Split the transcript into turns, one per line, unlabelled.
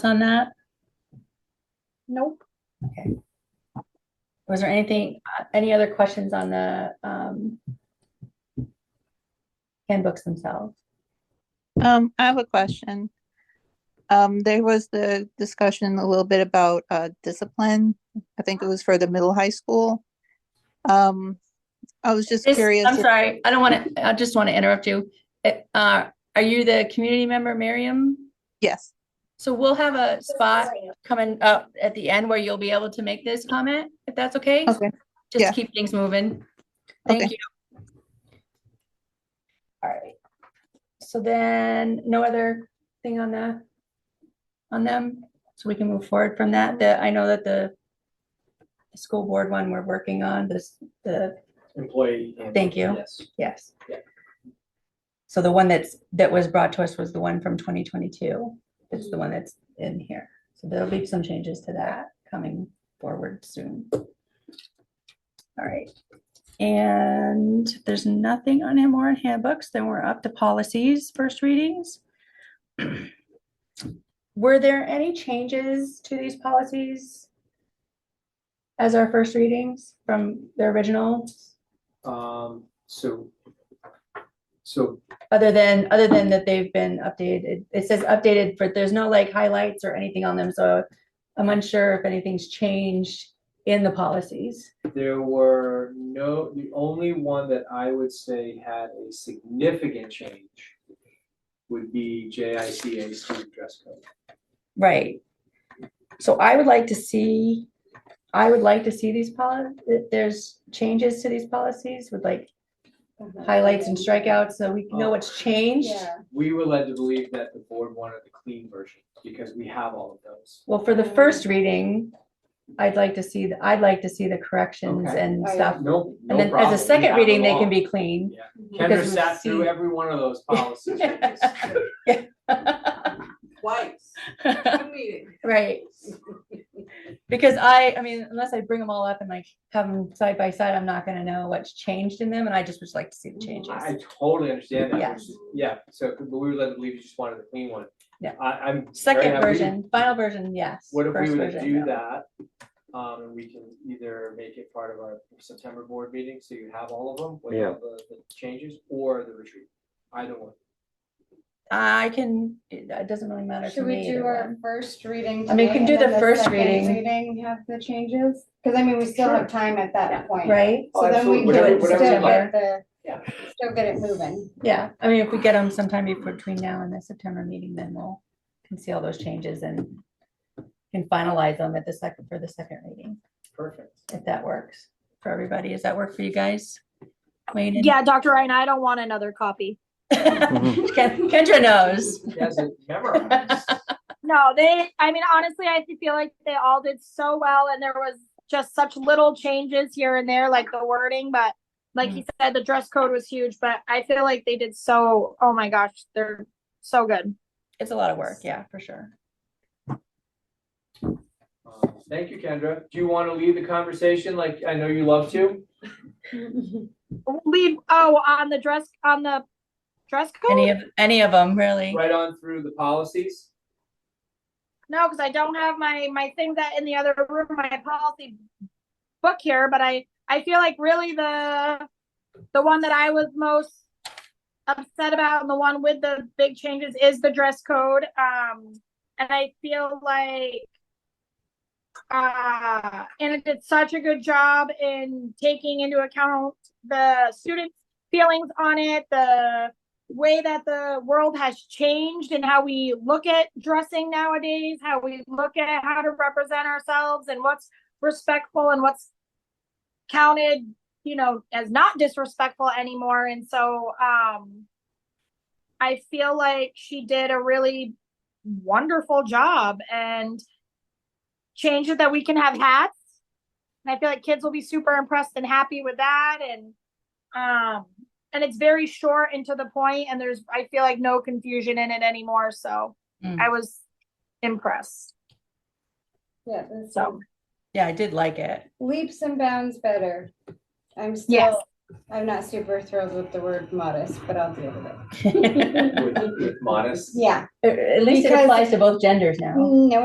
on that?
Nope.
Was there anything, uh, any other questions on the um, handbooks themselves?
Um, I have a question. Um, there was the discussion a little bit about, uh, discipline. I think it was for the middle high school. Um, I was just
This-
curious.
I'm
if-
sorry, I don't want to, I just want to interrupt you. It, uh, Are you the community member, Miriam?
Yes,
So we'll have a spot coming up at the end where you'll be able to make this comment, if that's okay?
okay.
Just
yeah.
to keep things moving. Thank
Okay.
you. All right. So then, no other thing on the, on them? So we can move forward from that, that I know that the the school board one we're working on, this, the,
employee. handbook,
Thank you.
Yes.
yes.
Yeah.
So the one that's, that was brought to us was the one from 2022. It's the one that's in here. So there'll be some changes to that coming forward soon. All right. And if there's nothing on him or in handbooks, then we're up to policies, first readings. Were there any changes to these policies as our first readings from the original,
Um, so, so
other than, other than that they've been updated? It says updated, but there's no like highlights or anything on them, so I'm unsure if anything's changed in the policies.
there were no, the only one that I would say had a significant change would be JICA student dress code.
Right. So I would like to see, I would like to see these policies, there's changes to these policies with like highlights and strikeouts, so we know what's changed.
Yeah.
We were led to believe that the board wanted the clean version because we have all of those.
Well, for the first reading, I'd like to see, the- I'd like to see the corrections
Okay.
and
Oh, yeah.
stuff.
No, no
And then
problem.
as
We
a second
have
reading, they
them
can
all.
be clean.
Kendra
because we've
sat through
seen-
every one of those policies. with us.
Twice. Two meetings.
Right. Because I, I mean, unless I bring them all up and like have them side by side, I'm not gonna know what's changed in them, and I just would like to see the changes.
I totally understand that,
Yeah.
which is- yeah, so, but we were led to believe you just wanted the clean one.
Yeah.
I, I'm. very
Second
happy.
version, final version, yes.
What if we
First
were to
version,
do
no.
that, um, and we can either make it part of our September board meeting, so you have all of them, with all the, the changes, or the retreat, either one.
I can, it it doesn't really matter to
Should we
me.
do
either
our
one.
first reading?
I mean, we
today
can do
and then
the first
second
reading.
Reading have the changes, because I mean, we still have time at that point.
Right?
Oh,
So then we
absolutely.
Whatever-
can
whatever
still
you like.
get the,
Yeah.
still get it moving.
Yeah, I mean, if we get them sometime be- between now and the September meeting, then we'll can see all those changes and can finalize them at the second, for the second reading,
Perfect.
if that works for everybody. Does that work for you guys? Wayne and-
Yeah, Dr. Ryan, I don't want another copy.
Ken- Kendra knows.
Yes, it memorized.
No, they, I mean, honestly, I feel like they all did so well and there was just such little changes here and there, like the wording, but like he said, the dress code was huge, but I feel like they did so, oh my gosh, they're so good.
It's a lot of work, yeah, for sure.
Um, Thank you, Kendra. Do you wanna lead the conversation like I know you love to?
Lead, oh, on the dress, on the dress
Any
code?
of, any of them, really.
Right on through the policies?
No, because I don't have my, my thing that in the other room, my policy book here, but I, I feel like really the, the one that I was most upset about and the one with the big changes is the dress code. Um, and I feel like, uh, and it did such a good job in taking into account the students' feelings on it, the way that the world has changed and how we look at dressing nowadays, how we look at how to represent ourselves and what's respectful and what's counted, you know, as not disrespectful anymore. And so um I feel like she did a really wonderful job and changed it that we can have hats. And I feel like kids will be super impressed and happy with that and um and it's very short and to the point and there's i feel like no confusion in it anymore so
Mm.
i was impressed
Yeah, that's
so
Yeah, I did like it.
leaps and bounds better. I'm
Yes.
still, I'm not super thrilled with the word modest, but I'll deal with it.
At
with, with modest.
Yeah,
at least it
Because-
applies to both genders now.
no